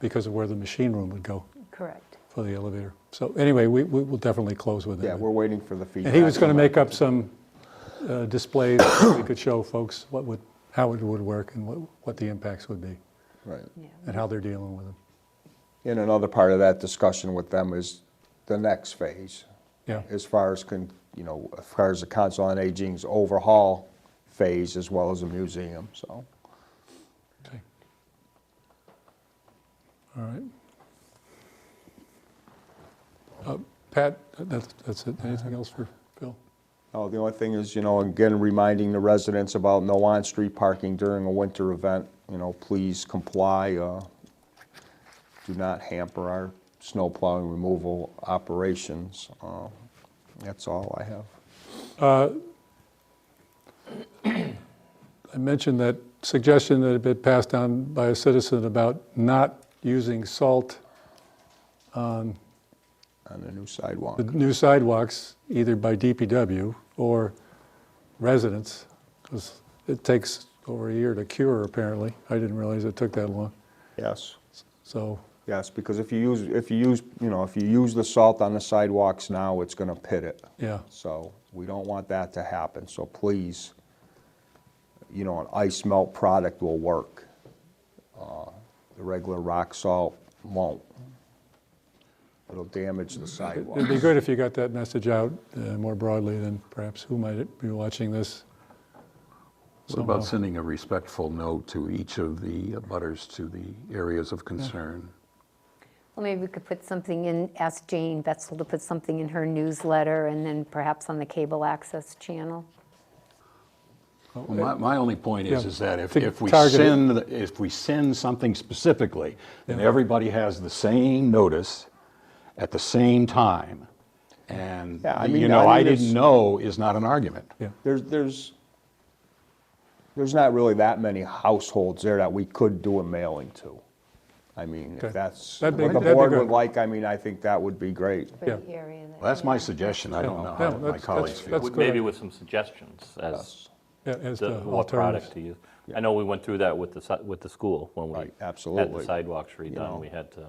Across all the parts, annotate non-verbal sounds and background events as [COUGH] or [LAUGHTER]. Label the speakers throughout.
Speaker 1: because of where the machine room would go
Speaker 2: Correct.
Speaker 1: for the elevator. So anyway, we, we will definitely close with it.
Speaker 3: Yeah, we're waiting for the feedback.
Speaker 1: And he was going to make up some uh, display that we could show folks what would, how it would work and what, what the impacts would be
Speaker 3: Right.
Speaker 2: Yeah.
Speaker 1: and how they're dealing with them.
Speaker 3: And another part of that discussion with them is the next phase,
Speaker 1: Yeah,
Speaker 3: as far as, con- you know, as far as the Council on Aging's overhaul phase, as well as the museum, so.
Speaker 1: okay. All right. Uh, Pat, that's, that's it. Anything else for Phil?
Speaker 3: Oh, the only thing is, you know, again, reminding the residents about no on-street parking during a winter event. You know, please comply, uh, do not hamper our snow plowing removal operations. Uh, That's all I have.
Speaker 1: I mentioned that suggestion that had been passed down by a citizen about not using salt
Speaker 3: on the new sidewalk.
Speaker 1: the new sidewalks, either by DPW or residents, because it takes over a year to cure, apparently. I didn't realize it took that long.
Speaker 3: Yes,
Speaker 1: So,
Speaker 3: yes, because if you use, if you use, you know, if you use the salt on the sidewalks now, it's gonna pit it.
Speaker 1: yeah,
Speaker 3: So we don't want that to happen, so please, you know, an ice melt product will work. Uh, The regular rock salt won't. It'll damage the sidewalk.
Speaker 1: it'd be good if you got that message out uh, more broadly than perhaps who might be watching this.
Speaker 4: What about
Speaker 1: somehow.
Speaker 4: sending a respectful note to each of the butters to the areas of concern?
Speaker 2: Well, maybe we could put something in, ask Jane Betzel to put something in her newsletter and then perhaps on the cable access channel.
Speaker 4: Well, my, my only point is,
Speaker 1: Yeah.
Speaker 4: is that if,
Speaker 1: To
Speaker 4: if we
Speaker 1: target it.
Speaker 4: send, the- if we send something specifically, then everybody has the same notice at the same time. And,
Speaker 3: Yeah, I mean,
Speaker 4: you know,
Speaker 3: I
Speaker 4: I
Speaker 3: mean,
Speaker 4: didn't
Speaker 3: it's-
Speaker 4: know is not an argument.
Speaker 1: Yeah,
Speaker 3: There's, there's, there's not really that many households there that we could do a mailing to. I mean,
Speaker 1: Okay.
Speaker 3: if that's, what
Speaker 1: That'd be-
Speaker 3: the
Speaker 1: that'd be
Speaker 3: board
Speaker 1: good.
Speaker 3: would like, I mean, I think that would be great.
Speaker 2: for
Speaker 1: Yeah.
Speaker 2: the area that-
Speaker 4: Well, that's my suggestion. I don't know
Speaker 1: Yeah,
Speaker 4: how
Speaker 1: that's-
Speaker 4: my
Speaker 1: that's-
Speaker 4: colleagues feel.
Speaker 1: that's-
Speaker 5: With-
Speaker 1: good
Speaker 5: Maybe
Speaker 1: idea.
Speaker 5: with some suggestions as
Speaker 1: yeah, as
Speaker 5: to
Speaker 1: the
Speaker 5: what product
Speaker 1: alternative.
Speaker 5: to use. I know we went through that with the, si- with the school when we
Speaker 3: Right,
Speaker 5: had
Speaker 3: absolutely.
Speaker 5: the sidewalks
Speaker 3: know.
Speaker 5: redone, we had to.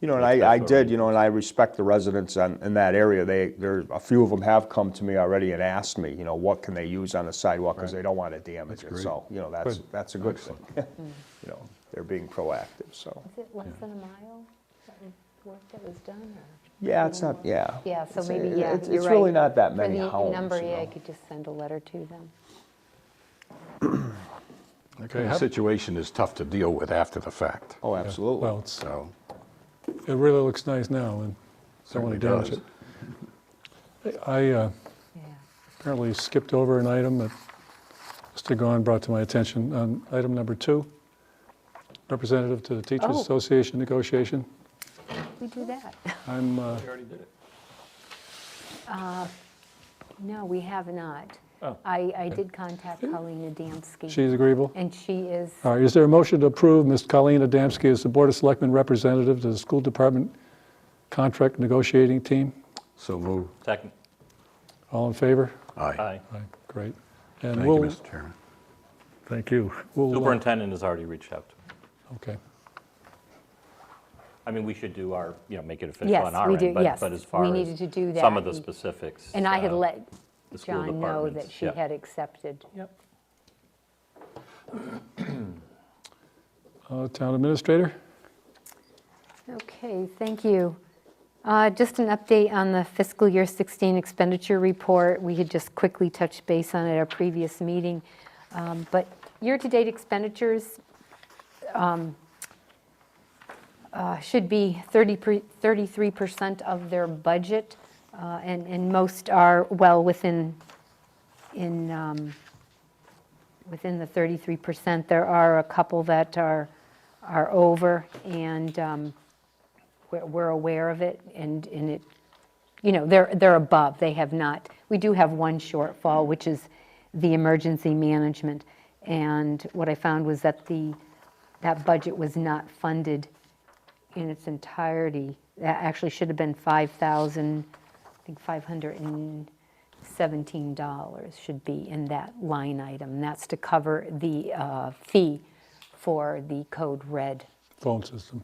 Speaker 3: You know, and
Speaker 5: That's-
Speaker 3: I, I
Speaker 5: that's
Speaker 3: did,
Speaker 5: already-
Speaker 3: you know, and I respect the residents on, in that area. They, there, a few of them have come to me already and asked me, you know, what can they use on the sidewalk? Because they don't want to damage it. So, you know, that's,
Speaker 1: Good.
Speaker 3: that's a good thing. [LAUGHS] You know, they're being proactive, so.
Speaker 2: Is it less than a mile, that was- work that was done, or?
Speaker 3: Yeah, it's not, yeah.
Speaker 2: Yeah, so
Speaker 3: It's-
Speaker 2: maybe,
Speaker 3: it-
Speaker 2: yeah,
Speaker 3: it's-
Speaker 2: you're
Speaker 3: It's really
Speaker 2: right.
Speaker 3: not that many homes,
Speaker 2: For the number,
Speaker 3: you
Speaker 2: yeah, I
Speaker 3: know.
Speaker 2: could just send a letter to them.
Speaker 4: That kind of situation is tough to deal with after the fact,
Speaker 3: Oh,
Speaker 1: Yeah.
Speaker 3: absolutely.
Speaker 1: Well, it's,
Speaker 4: so.
Speaker 1: it really looks nice now, and don't want
Speaker 4: certainly
Speaker 1: to damage
Speaker 4: does.
Speaker 1: it. I uh,
Speaker 2: Yeah.
Speaker 1: apparently skipped over an item that Mr. Gahn brought to my attention. On item number two, representative to the Teachers
Speaker 2: Oh.
Speaker 1: Association negotiation.
Speaker 2: We do that.
Speaker 1: I'm, uh,
Speaker 2: No, we have not.
Speaker 5: Oh.
Speaker 2: I, I did contact Colleen Adamski.
Speaker 1: she's agreeable.
Speaker 2: And she is,
Speaker 1: All right, is there a motion to approve Ms. Colleen Adamski as the Board of Selectmen representative to the School Department Contract Negotiating Team?
Speaker 4: So moved.
Speaker 5: Second,
Speaker 1: All in favor?
Speaker 4: Aye.
Speaker 5: aye.
Speaker 1: All right, great.
Speaker 4: Thank you, Mr. Chairman.
Speaker 1: Thank you.
Speaker 5: Superintendent has already reached out. to me.
Speaker 1: uh, Okay,
Speaker 5: I mean, we should do our, you know, make it official
Speaker 2: Yes,
Speaker 5: on our
Speaker 2: we
Speaker 5: end.
Speaker 2: do,
Speaker 5: but-
Speaker 2: yes.
Speaker 5: But as
Speaker 2: We
Speaker 5: far
Speaker 2: needed
Speaker 5: as
Speaker 2: to do
Speaker 5: some
Speaker 2: that
Speaker 5: of the
Speaker 2: and-
Speaker 5: specifics.
Speaker 2: and I had
Speaker 5: uh,
Speaker 2: let
Speaker 5: the school
Speaker 2: John know that
Speaker 5: departments,
Speaker 2: she
Speaker 5: yeah.
Speaker 2: had accepted.
Speaker 5: Yep.
Speaker 1: Uh, Town Administrator?
Speaker 2: Okay, thank you. Uh, Just an update on the fiscal year 16 expenditure report. We had just quickly touched base on it at our previous meeting. Um, But year-to-date expenditures um, uh, should be 30 per- 33% of their budget, uh, and and most are well within, in, um, within the 33%. There are a couple that are, are over, and um, we're, we're aware of it, and, and it, you know, they're, they're above, they have not, we do have one shortfall, which is the emergency management. And what I found was that the, that budget was not funded in its entirety. That actually should have been 5,000, I think 517 dollars should be in that line item. That's to cover the uh, fee for the Code Red
Speaker 1: Phone system.